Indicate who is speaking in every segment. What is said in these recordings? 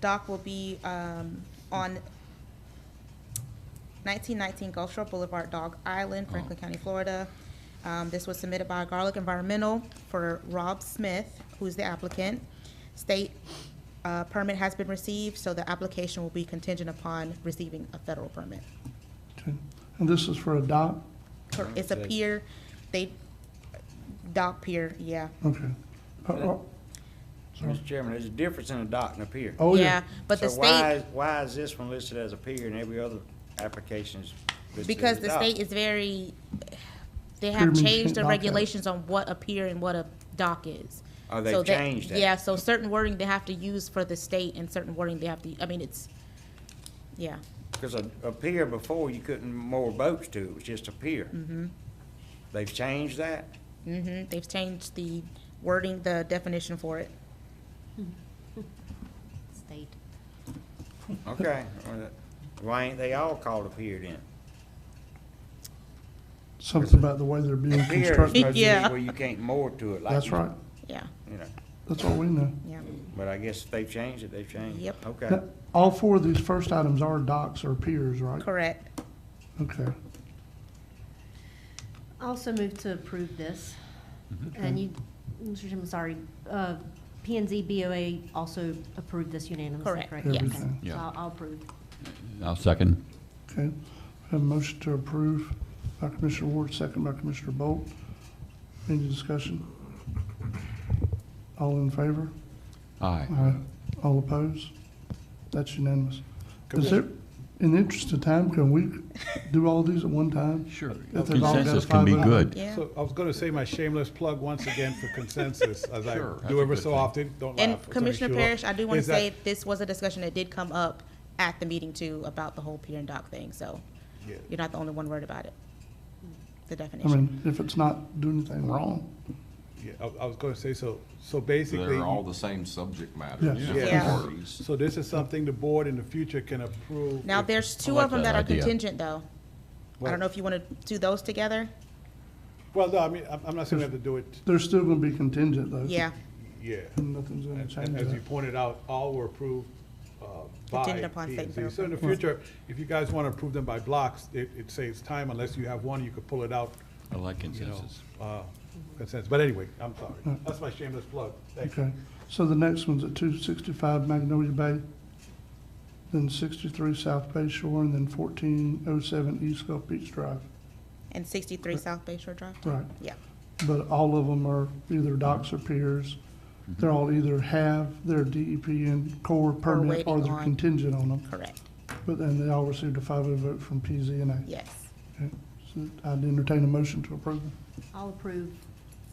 Speaker 1: dock will be um, on 1919 Gulf Shore Boulevard, Dog Island, Franklin County, Florida. Um, This was submitted by Garlic Environmental for Rob Smith, who's the applicant. State uh, permit has been received, so the application will be contingent upon receiving a federal permit.
Speaker 2: Okay. And this is for a dock?
Speaker 1: Cor- It's a
Speaker 3: Okay.
Speaker 1: pier, they, dock pier, yeah.
Speaker 2: Okay. Uh, uh,
Speaker 3: Mr. Chairman, there's a difference in a dock and a pier.
Speaker 2: Oh, yeah.
Speaker 1: But the
Speaker 3: So why,
Speaker 1: state,
Speaker 3: is- why is this one listed as a pier and every other application is listed as
Speaker 1: because
Speaker 3: a
Speaker 1: the
Speaker 3: dock?
Speaker 1: state is very, they
Speaker 2: Pier
Speaker 1: have
Speaker 2: means
Speaker 1: changed the
Speaker 2: dock out.
Speaker 1: regulations on what a pier and what a dock is.
Speaker 3: Oh,
Speaker 1: So
Speaker 3: they've
Speaker 1: that-
Speaker 3: changed that.
Speaker 1: Yeah, so certain wording they have to use for the state and certain wording they have to, I mean, it's, yeah.
Speaker 3: Because a, a pier before, you couldn't moor boats to, it was just a pier.
Speaker 1: Mm-hmm.
Speaker 3: They've changed that?
Speaker 1: hmm they've changed the wording, the definition for it.
Speaker 4: State.
Speaker 3: Okay, well, why ain't they all called a pier then?
Speaker 2: Something about the way they're being
Speaker 3: Pier is
Speaker 2: constructed.
Speaker 3: supposed to be
Speaker 1: Yeah.
Speaker 3: where you can't moor to it like.
Speaker 2: That's
Speaker 3: you-
Speaker 2: right.
Speaker 1: Yeah,
Speaker 3: You know,
Speaker 2: That's all we know.
Speaker 1: yeah.
Speaker 3: but I guess if they've changed it, they've changed. it.
Speaker 1: Yep.
Speaker 3: Okay.
Speaker 2: Now, All four of these first items are docks or piers, right?
Speaker 1: Correct.
Speaker 2: Okay.
Speaker 4: Also move to approve this. And you, Mr. Jim, sorry, uh, P and Z BOA also approved this unanimously,
Speaker 1: Correct,
Speaker 4: correct?
Speaker 1: yes.
Speaker 4: Okay.
Speaker 2: Everything.
Speaker 5: Yeah.
Speaker 4: So I'll I'll approve.
Speaker 5: I'll second.
Speaker 2: Okay. We Have a motion to approve by Commissioner Ward, second by Commissioner Bolt. Any discussion? All in favor?
Speaker 5: Aye.
Speaker 2: Aye. All opposed? Uh, That's unanimous. Is there, in the interest of time, can we do all these at one time?
Speaker 5: Sure.
Speaker 2: If they've all got
Speaker 5: Consensus can be
Speaker 2: five
Speaker 5: good.
Speaker 1: Yeah.
Speaker 6: So I was going to say my shameless plug once again for consensus, as I
Speaker 5: Sure, that's
Speaker 6: do
Speaker 5: a
Speaker 6: ever
Speaker 5: good
Speaker 6: so
Speaker 5: thing.
Speaker 6: often. Don't laugh.
Speaker 1: And
Speaker 6: Attorney
Speaker 1: Commissioner
Speaker 6: Shula.
Speaker 1: Parrish, I do want to
Speaker 6: Is that-
Speaker 1: say, this was a discussion that did come up at the meeting too, about the whole pier and dock thing, so
Speaker 6: Yeah.
Speaker 1: you're not the only one worried about it. The
Speaker 2: I
Speaker 1: definition.
Speaker 2: mean, if it's not doing anything wrong,
Speaker 6: yeah, I I was going to say, so, so basically,
Speaker 7: They're all the same subject matter,
Speaker 2: Yes.
Speaker 7: different
Speaker 1: Yeah.
Speaker 7: parties.
Speaker 6: so this is something the board in the future can approve.
Speaker 1: Now,
Speaker 6: if-
Speaker 1: there's two
Speaker 5: like
Speaker 1: of them
Speaker 5: that
Speaker 1: that are
Speaker 5: idea.
Speaker 1: contingent though. I
Speaker 6: Well-
Speaker 1: don't know if you want to do those together?
Speaker 6: Well, no, I mean, I'm- I'm not saying we have to do it,
Speaker 2: they're still gonna be contingent though.
Speaker 1: Yeah,
Speaker 6: yeah.
Speaker 2: And nothing's gonna
Speaker 6: And-
Speaker 2: change
Speaker 6: And as you
Speaker 2: that.
Speaker 6: pointed out, all were approved uh, by
Speaker 1: Contingent upon
Speaker 6: P
Speaker 1: state
Speaker 6: and Z.
Speaker 1: federal
Speaker 6: So in the future, if you guys want to approve them by blocks, it, it saves time unless you have one, you could pull it out,
Speaker 5: I like
Speaker 6: you know,
Speaker 5: consensus.
Speaker 6: uh, consensus. But anyway, I'm sorry. That's my shameless plug. Thank you.
Speaker 2: Uh, Okay, so the next one's at two sixty-five Magnolia Bay, then sixty-three South Bay Shore, and then fourteen oh seven East Gulf Beach Drive.
Speaker 1: and sixty-three South Bay Shore Drive?
Speaker 2: Right,
Speaker 1: Yeah.
Speaker 2: but all of them are either docks or piers. They're all either have their DEP and core permit, or
Speaker 1: waiting
Speaker 2: they're
Speaker 1: on-
Speaker 2: contingent on them.
Speaker 1: Correct,
Speaker 2: But then they all received a five oh vote from PZNA.
Speaker 1: yes.
Speaker 2: Okay, So I'd entertain a motion to approve them.
Speaker 4: I'll approve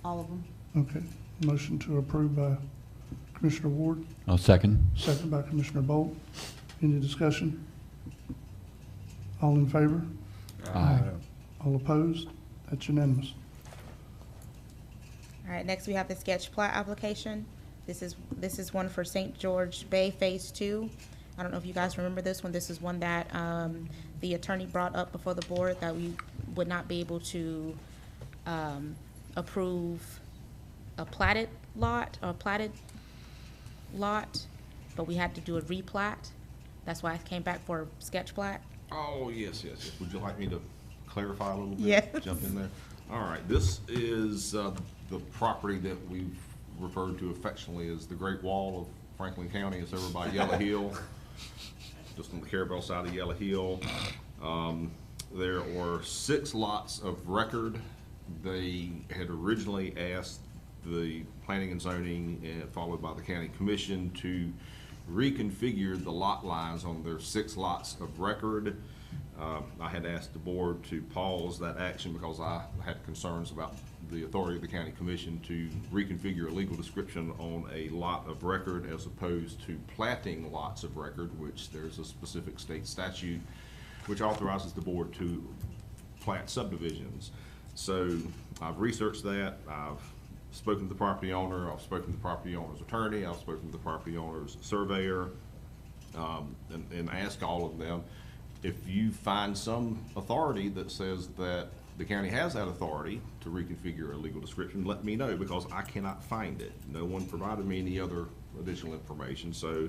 Speaker 4: all of them.
Speaker 2: Okay, motion to approve by Commissioner Ward,
Speaker 5: I'll second.
Speaker 2: second by Commissioner Bolt. Any discussion? All in favor?
Speaker 5: Aye.
Speaker 2: All opposed? That's unanimous.
Speaker 1: All right, next we have the sketch plat application. This is, this is one for St. George Bay Phase Two. I don't know if you guys remember this one. This is one that, um, the attorney brought up before the board that we would not be able to, um, approve a platted lot, or platted lot, but we had to do a replat. That's why I came back for a sketch plat.
Speaker 7: Oh, yes, yes, yes. Would you like me to clarify a little bit?
Speaker 1: Yes.
Speaker 7: Jump in there? All right, this is uh, the property that we've referred to affectionately as the Great Wall of Franklin County. It's over by Yellow Hill, just on the Carabel side of Yellow Hill. Um, There were six lots of record. They had originally asked the planning and zoning, uh, followed by the county commission, to reconfigure the lot lines on their six lots of record. Um, I had asked the board to pause that action because I had concerns about the authority of the county commission to reconfigure a legal description on a lot of record as opposed to platting lots of record, which there's a specific state statute which authorizes the board to plat subdivisions. So I've researched that, I've spoken to the property owner, I've spoken to the property owner's attorney, I've spoken to the property owner's surveyor, um, and, and ask all of them, if you find some authority that says that the county has that authority to reconfigure a legal description, let me know, because I cannot find it. No one provided me any other additional information, so